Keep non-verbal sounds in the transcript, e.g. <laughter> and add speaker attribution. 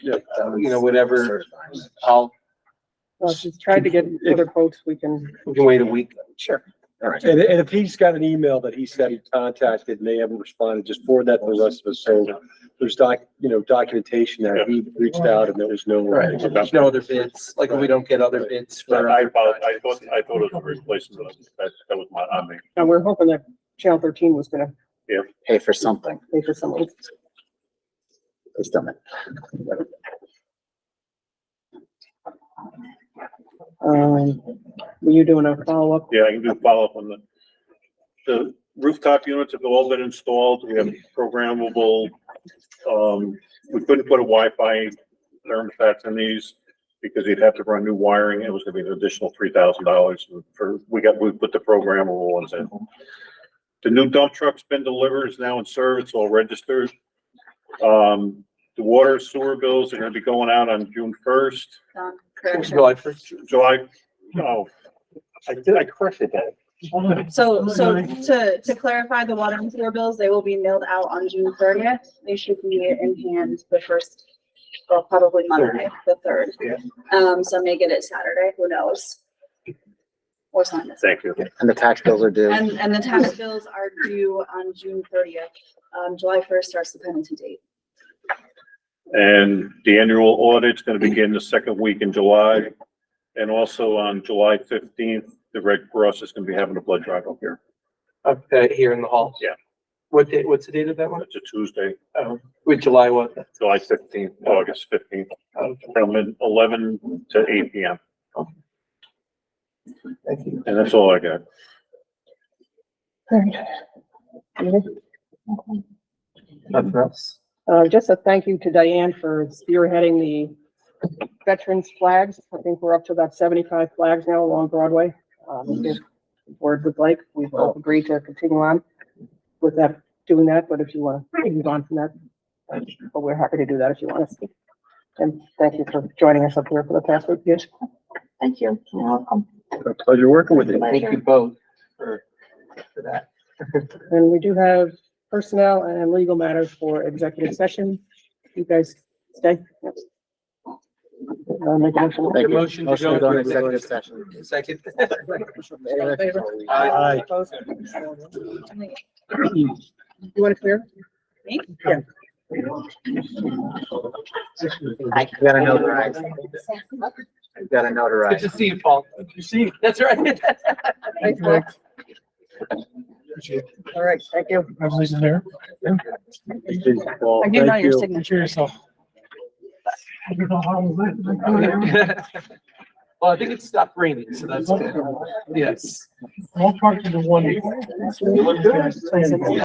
Speaker 1: uh, you know, whatever, I'll,
Speaker 2: Well, if you tried to get other quotes, we can.
Speaker 1: we can wait a week.
Speaker 2: Sure.
Speaker 1: All right.
Speaker 3: And, and if he's got an email that he said he contacted and they haven't responded, just forward that to the rest of us. So there's doc, you know, documentation that he reached out and there was no.
Speaker 1: Right, there's no other bids, like if we don't get other bids for. uh,
Speaker 4: I apologize, I thought, I thought it was a replacement, that, that was my, I mean,
Speaker 2: And we're hoping that Channel thirteen was gonna
Speaker 5: pay for something.
Speaker 2: pay for some of it.
Speaker 5: It's done it.
Speaker 2: Um, were you doing a follow-up?
Speaker 4: yeah, I can do follow-up on the, the rooftop units have all been installed, we have programmable, um, we couldn't put a Wi-Fi thermostats in these because you'd have to run new wiring, it was gonna be an additional three thousand dollars for, we got, we put the programmable ones in. The new dump truck's been delivered, it's now in service, all registered. Um, the water sewer bills are gonna be going out on June first.
Speaker 6: Um, correction.
Speaker 1: July first.
Speaker 4: July, oh, I did, I corrected that.
Speaker 6: So, so to, to clarify, the water and sewer bills, they will be mailed out on June thirtieth. They should be in hand the first, well, probably Monday, the third.
Speaker 4: Yeah.
Speaker 6: Um, so may get it Saturday, who knows? Or Sunday.
Speaker 4: Thank you.
Speaker 5: And the tax bills are due.
Speaker 6: And, and the tax bills are due on June thirtieth. Um, July first starts the penalty date.
Speaker 4: And the annual audit's gonna begin the second week in July. And also on July fifteenth, the Red Cross is gonna be having a blood drive up here.
Speaker 1: Up uh, here in the hall.
Speaker 4: Yeah.
Speaker 1: What date, what's the date of that one?
Speaker 4: It's a Tuesday,
Speaker 1: Oh, with July what?
Speaker 4: July fifteenth, August fifteenth,
Speaker 1: Oh,
Speaker 4: from eleven to eight P M.
Speaker 1: Thank you.
Speaker 4: And that's all I got.
Speaker 1: Nothing else?
Speaker 2: Uh, just a thank you to Diane for spearheading the veterans flags. I think we're up to about seventy-five flags now along Broadway. Um, if the board would like, we've all agreed to continue on with that, doing that, but if you want to move on from that, but we're happy to do that if you want us to. And thank you for joining us up here for the past week, yes.
Speaker 7: Thank you. You're welcome.
Speaker 3: A Pleasure working with you.
Speaker 1: Thank you both for, for that.
Speaker 2: And we do have personnel and legal matters for executive session. You guys stay. Yep. Uh, make a motion.
Speaker 5: Thank you.
Speaker 1: Motion to go
Speaker 5: Motion to go
Speaker 1: into
Speaker 5: into executive
Speaker 1: executive
Speaker 5: session.
Speaker 1: Second.
Speaker 2: Aye.
Speaker 1: Aye.
Speaker 2: Opposed? You want to clear?
Speaker 6: Me?
Speaker 2: Yeah.
Speaker 5: I gotta notarize. I gotta
Speaker 1: Good
Speaker 5: notarize.
Speaker 1: to see you, Paul. Good to see you. That's right.
Speaker 2: Thanks, Max. All right, thank you.
Speaker 8: Congratulations, Mayor.
Speaker 6: I do know your signature.
Speaker 8: yourself. I don't know how it went.
Speaker 1: <laughs> Well, I think it stopped raining, so that's good. Yes.
Speaker 8: All parts of the one.
Speaker 1: look good.